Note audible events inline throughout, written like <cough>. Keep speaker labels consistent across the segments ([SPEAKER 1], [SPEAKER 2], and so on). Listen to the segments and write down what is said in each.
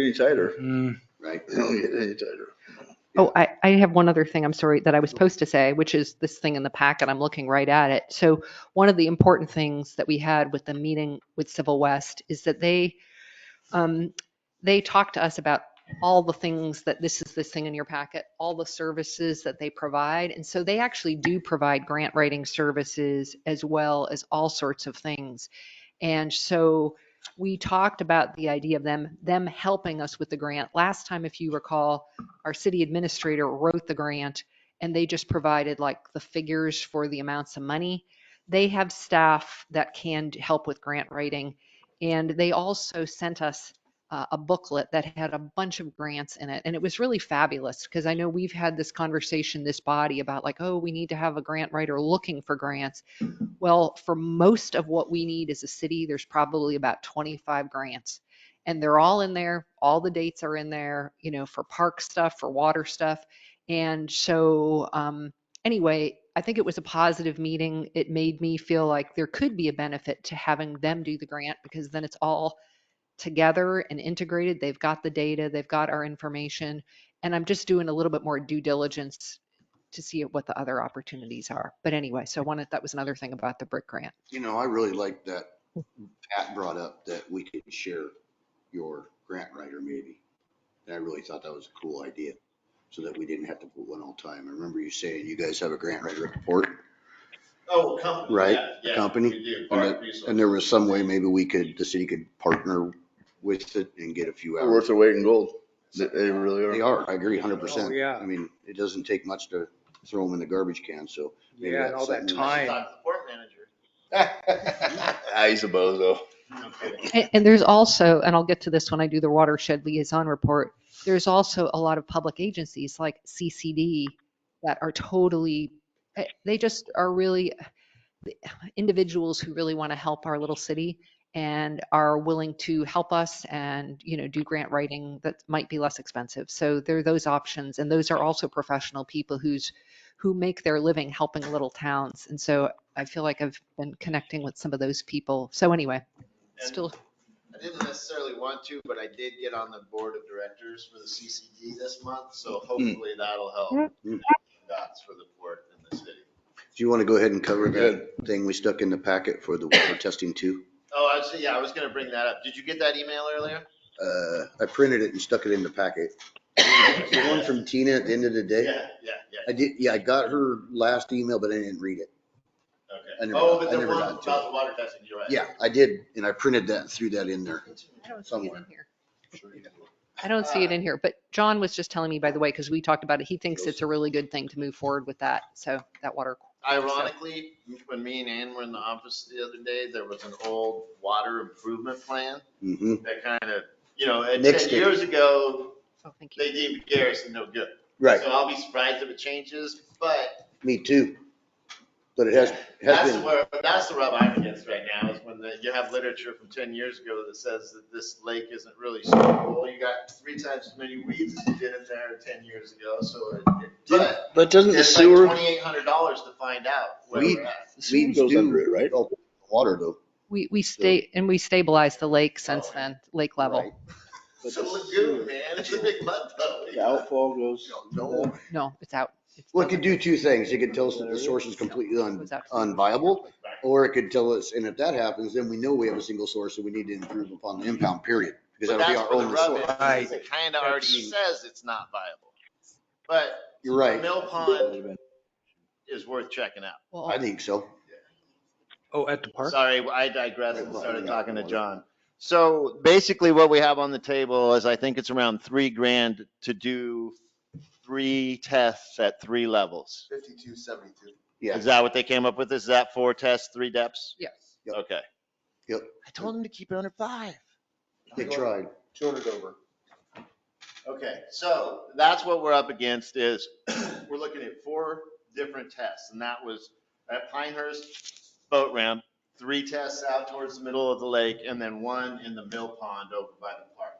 [SPEAKER 1] Any tighter,
[SPEAKER 2] Mm,
[SPEAKER 1] <laughs>
[SPEAKER 3] right?
[SPEAKER 1] you don't get any tighter.
[SPEAKER 4] Oh, I, I have one other thing, I'm sorry, that I was supposed to say, which is this thing in the packet, I'm looking right at it. So one of the important things that we had with the meeting with Civil West is that they, um, they talked to us about all the things that this is this thing in your packet, all the services that they provide. And so they actually do provide grant writing services as well as all sorts of things. And so we talked about the idea of them, them helping us with the grant. Last time, if you recall, our city administrator wrote the grant and they just provided like the figures for the amounts of money. They have staff that can help with grant writing. And they also sent us uh, a booklet that had a bunch of grants in it. And it was really fabulous because I know we've had this conversation, this body about like, oh, we need to have a grant writer looking for grants. Well, for most of what we need as a city, there's probably about 25 grants and they're all in there. All the dates are in there, you know, for park stuff, for water stuff. And so, um, anyway, I think it was a positive meeting. It made me feel like there could be a benefit to having them do the grant because then it's all together and integrated. They've got the data, they've got our information. And I'm just doing a little bit more due diligence to see what the other opportunities are. But anyway, so I wanted, that was another thing about the brick grant.
[SPEAKER 3] You know, I really like that Pat brought up that we could share your grant writer maybe. And I really thought that was a cool idea, so that we didn't have to put one all time. I remember you saying you guys have a grant writer at the port.
[SPEAKER 5] Oh, company.
[SPEAKER 3] Right,
[SPEAKER 5] yeah, yeah,
[SPEAKER 3] company.
[SPEAKER 5] we do,
[SPEAKER 3] And
[SPEAKER 5] part
[SPEAKER 3] that-
[SPEAKER 5] resource.
[SPEAKER 3] And there was some way maybe we could, the city could partner with it and get a few
[SPEAKER 1] They're
[SPEAKER 3] hours.
[SPEAKER 1] worth their weight in gold. They- They really
[SPEAKER 3] They
[SPEAKER 1] are.
[SPEAKER 3] are, I agree hundred percent.
[SPEAKER 2] Oh, yeah.
[SPEAKER 3] I mean, it doesn't take much to throw them in the garbage can, so. maybe
[SPEAKER 2] Yeah, and all that
[SPEAKER 3] something
[SPEAKER 5] I
[SPEAKER 2] time.
[SPEAKER 5] thought the port
[SPEAKER 1] <laughs>
[SPEAKER 5] manager.
[SPEAKER 1] He's a bozo.
[SPEAKER 5] No kidding.
[SPEAKER 4] And, and there's also, and I'll get to this when I do the watershed liaison report, there's also a lot of public agencies like CCD that are totally, eh, they just are really the individuals who really want to help our little city and are willing to help us and, you know, do grant writing that might be less expensive. So there are those options. And those are also professional people who's, who make their living helping little towns. And so I feel like I've been connecting with some of those people. So anyway, still
[SPEAKER 5] I didn't necessarily want to, but I did get on the board of directors for the CCD this month,
[SPEAKER 3] Hmm.
[SPEAKER 5] so hopefully that'll help.
[SPEAKER 3] Mm.
[SPEAKER 5] Dots for the port and the city.
[SPEAKER 3] Do you want to go ahead and cover
[SPEAKER 1] Good.
[SPEAKER 3] that thing we stuck in the packet for the water testing too?
[SPEAKER 5] Oh, I was, yeah, I was gonna bring that up. Did you get that email earlier?
[SPEAKER 3] Uh, I printed it and stuck it in the packet. The one from Tina at the end of the day?
[SPEAKER 5] Yeah, yeah, yeah,
[SPEAKER 3] I did, yeah, I got her last email, but I didn't read it. I
[SPEAKER 5] okay.
[SPEAKER 3] never
[SPEAKER 5] Oh,
[SPEAKER 3] got-
[SPEAKER 5] but
[SPEAKER 3] I
[SPEAKER 5] the
[SPEAKER 3] never
[SPEAKER 5] one
[SPEAKER 3] got
[SPEAKER 5] about
[SPEAKER 3] to it.
[SPEAKER 5] the water testing, you're right.
[SPEAKER 3] Yeah, I did, and I printed that and threw that in there.
[SPEAKER 4] I don't see it
[SPEAKER 3] somewhere.
[SPEAKER 4] in here. I don't see it in here, but John was just telling me, by the way, because we talked about it, he thinks it's a really good thing to move forward with that. So that water.
[SPEAKER 5] Ironically, when me and Ann were in the office the other day, there was an old water improvement plan
[SPEAKER 3] hmm
[SPEAKER 5] that kind of, you know, and
[SPEAKER 3] Nixed
[SPEAKER 5] ten
[SPEAKER 3] it.
[SPEAKER 5] years ago,
[SPEAKER 4] So thank you.
[SPEAKER 5] they deemed Garrison no good.
[SPEAKER 3] Right,
[SPEAKER 5] So I'll be surprised if it changes, but
[SPEAKER 3] me too. But it has, has
[SPEAKER 5] that's
[SPEAKER 3] been,
[SPEAKER 5] where, that's the rub I'm against right now, is when the- you have literature from ten years ago that says that this lake isn't really suitable. You got three times as many weeds as you did in there ten years ago, so it, it- but
[SPEAKER 1] But doesn't
[SPEAKER 5] it's like twenty-eight hundred dollars to find out where
[SPEAKER 3] Weed-
[SPEAKER 5] we're at.
[SPEAKER 1] Weed
[SPEAKER 3] weeds
[SPEAKER 1] goes
[SPEAKER 3] do-
[SPEAKER 1] under it, right?
[SPEAKER 3] oh, water though.
[SPEAKER 4] We, we stay, and we stabilized the lake since
[SPEAKER 5] Oh, yeah.
[SPEAKER 4] then, lake level.
[SPEAKER 3] Right.
[SPEAKER 5] It's a lagoon, man, it's a big mud
[SPEAKER 1] The
[SPEAKER 5] puddle.
[SPEAKER 1] outfall goes.
[SPEAKER 3] No.
[SPEAKER 4] No, it's out. It's
[SPEAKER 3] Well, it could
[SPEAKER 4] done.
[SPEAKER 3] do two things. It could tell us that the source is completely un,
[SPEAKER 4] Goes out to-
[SPEAKER 3] unviable, or it could tell us, and if that happens, then we know we have a single source and we need to improve upon the impound period. Because
[SPEAKER 5] But
[SPEAKER 3] that'll be
[SPEAKER 5] that's
[SPEAKER 3] our
[SPEAKER 5] where the
[SPEAKER 3] only
[SPEAKER 5] rub
[SPEAKER 3] source.
[SPEAKER 5] is, is, it kinda already
[SPEAKER 2] That's-
[SPEAKER 5] says it's not viable. But
[SPEAKER 3] You're right.
[SPEAKER 5] Mill Pond is worth checking out.
[SPEAKER 4] Well,
[SPEAKER 3] I think so.
[SPEAKER 2] Oh, at the park?
[SPEAKER 5] Sorry, I digressed and started talking to John. So basically what we have on the table is I think it's around three grand to do three tests at three levels.
[SPEAKER 6] Fifty-two seventy-two.
[SPEAKER 3] Yeah.
[SPEAKER 5] Is that what they came up with? Is that four tests, three depths?
[SPEAKER 4] Yes.
[SPEAKER 3] Yep.
[SPEAKER 5] Okay.
[SPEAKER 3] Yep.
[SPEAKER 5] I told him to keep it under five.
[SPEAKER 3] They tried.
[SPEAKER 6] Two hundred over.
[SPEAKER 5] Okay, so that's what we're up against is, <clears throat> we're looking at four different tests, and that was at Pinehurst Boat Ramp, three tests out towards the middle of the lake, and then one in the mill pond over by the park.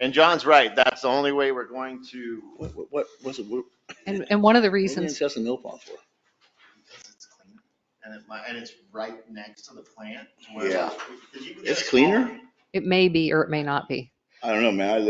[SPEAKER 5] And John's right, that's the only way we're going to,
[SPEAKER 1] What, what- what, what's it, what
[SPEAKER 4] and, and one of the
[SPEAKER 1] are you
[SPEAKER 4] reasons,
[SPEAKER 1] assessing mill pond for?
[SPEAKER 5] because it's cleaner, and it might, and it's right next to the plant. to where-
[SPEAKER 3] Yeah.
[SPEAKER 5] 'cause you can get
[SPEAKER 1] It's
[SPEAKER 5] a
[SPEAKER 1] cleaner?
[SPEAKER 5] small-
[SPEAKER 4] it may be or it may not be.
[SPEAKER 1] I don't know, man. I